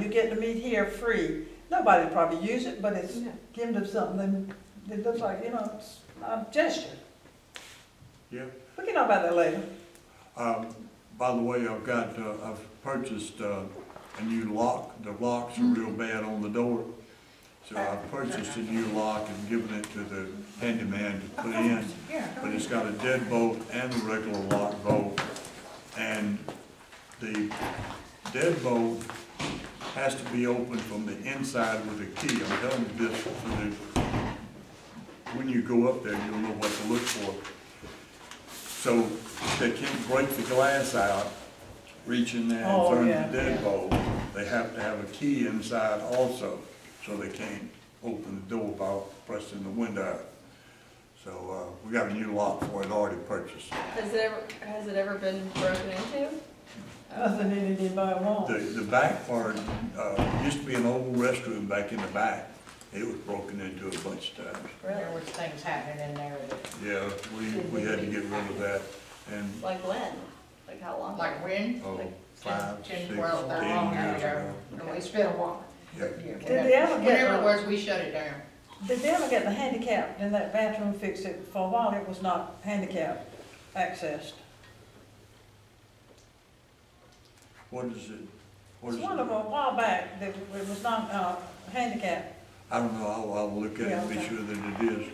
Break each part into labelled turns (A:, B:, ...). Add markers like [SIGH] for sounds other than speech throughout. A: you get to meet here free. Nobody probably use it, but it's
B: No.
A: giving them something that looks like, you know, it's a gesture.
C: Yeah.
A: We can talk about that later.
C: Um, By the way, I've got, uh, I've purchased uh, a new lock. The locks are real bad on the door. So I purchased a new lock and given it to the handyman to put in. But it's got a deadbolt and a regular lock bolt. And the deadbolt has to be opened from the inside with a key. I'm telling you this, so that when you go up there, you'll know what to look for. So they can't break the glass out, reach in there and
A: Oh,
C: turn
A: yeah,
C: the
A: yeah.
C: deadbolt. They have to have a key inside also, so they can't open the door by pressing the window. out. So, uh, we got a new lock for it already purchased.
B: Has it ever, has it ever been broken into?
A: Nothing needed anybody
C: The,
A: wants.
C: the back part, uh, used to be an old restroom back in the back. It was broken into a bunch of times.
D: There was things happening in there, that-
C: Yeah, we, we had to get rid of that and,
B: Like when? Like how long?
D: like when?
C: oh, five, six, ten
D: Ten,
C: years
D: twelve, that long
C: ago.
D: ago. And it's been a while.
C: Yeah.
D: Yeah,
A: Did they ever get
D: Whenever
A: the-
D: it was, we shut it down.
A: Did they ever get the handicapped in that bathroom fixed? It, for a while, it was not handicap accessed.
C: What is it? What
A: It's
C: is
A: one of them,
C: it?
A: a while back, that it was not, uh, handicap.
C: I don't know, I'll, I'll look at it and
A: Yeah,
C: be sure that it is,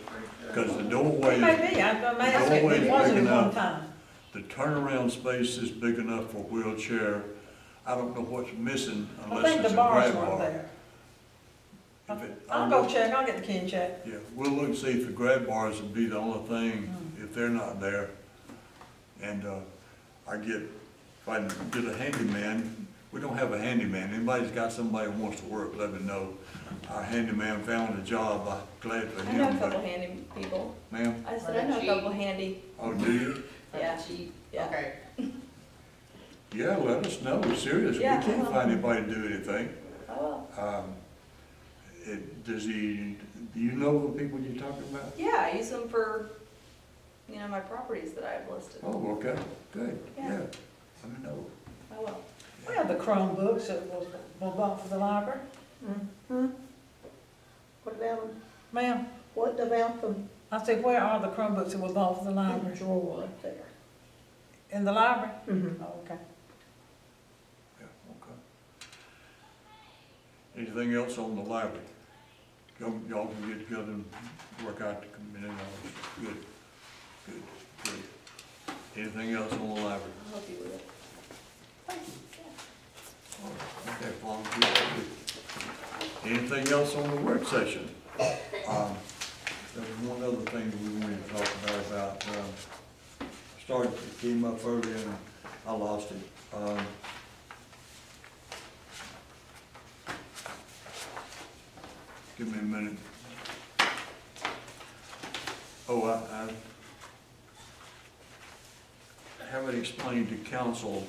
C: because the
A: It may
C: doorway,
A: be, I- I'm
C: It's
A: asking,
C: always
A: it wasn't
C: big
A: at one
C: enough.
A: time.
C: the turnaround space is big enough for wheelchair. I don't know what's missing
A: I
C: unless
A: think
C: it's
A: the
C: a
A: bars
C: grab
A: weren't
C: bar.
A: there.
C: If it-
A: I'll go check, I'll get the key and check.
C: Yeah, we'll look and see if the grab bars would be the only thing,
B: Mm.
C: if they're not there. And, uh, I get, if I can get a handyman, we don't have a handyman, anybody's got somebody who wants to work, let me know. Our handyman found a job, I'm glad for
B: I know a
C: him,
B: couple
C: but,
B: handy people.
C: ma'am,
B: I said, I know a couple handy.
C: oh, do you?
B: Yeah. Yeah.
D: Okay.
C: Yeah, let us know, we're serious, we
B: Yeah, I
C: can't
B: will.
C: find anybody to do anything.
B: Oh,
C: Um, it, does he, do you know the people you're talking about?
B: yeah, I use them for, you know, my properties that I've listed.
C: Oh, okay, good,
B: Yeah.
C: yeah, let me know.
B: I will.
A: We have the Chromebooks that was, were bought for the library.
E: Mm-hmm. What about,
A: Ma'am,
E: what about the
A: I said, where are the Chromebooks that were bought for the library?
E: drawer up there? Mm-hmm.
A: In the library? Oh, okay.
C: Yeah, okay. Anything else on the library? Y'all, y'all can get together and work out the committee, all good, good, good. Anything else on the library?
B: I'll help you with it.
C: All right, Okay, Paul, good, good. Anything else on the work session? Um, there was one other thing that we wanted to talk about, about, um, started, it came up earlier and I lost it. Um, Give me a minute. Oh, I, I haven't explained to council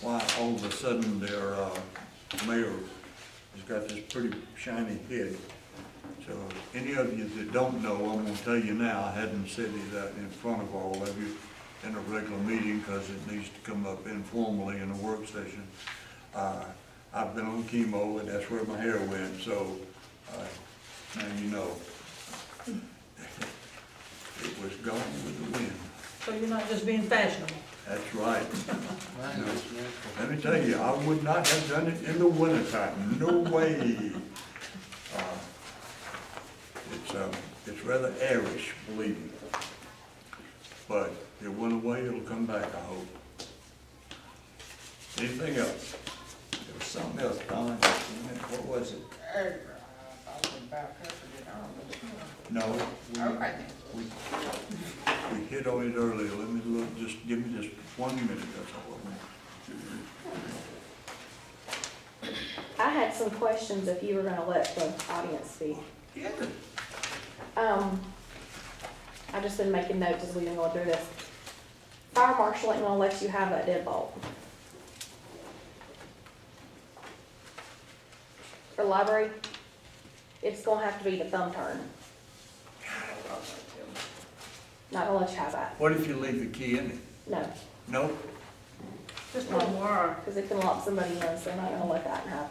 C: why all of a sudden their, uh, mayor has got this pretty shiny head. So any of you that don't know, I'm gonna tell you now, I hadn't said it out in front of all of you in a regular meeting, cause it needs to come up informally in a work session. Uh, I've been on chemo and that's where my hair went, so, uh, now you know. [LAUGHS] It was gone with the wind.
A: So you're not just being fashionable.
C: That's right. Let me tell you, I would not have done it in the wintertime, no way. Uh, It's, um, it's rather airish, believe me. But it went away, it'll come back, I hope. Anything else? There was something else, Don, what was it?
D: Er, I was about to forget all
C: No, we,
D: this. Okay.
C: we, we hit on it earlier, let me look, just, give me just one minute, that's all I want.
F: I had some questions if you were gonna let the audience speak.
C: Yeah.
F: Um, I've just been making notes as we've been going through this. Fire marshal ain't gonna let you have that deadbolt. For library, it's gonna have to be the thumb turn. Not gonna let you have that,
C: What if you leave the key in it?
F: no,
C: Nope.
A: Just one word.
F: because it can lock somebody in, so they're not gonna let that happen.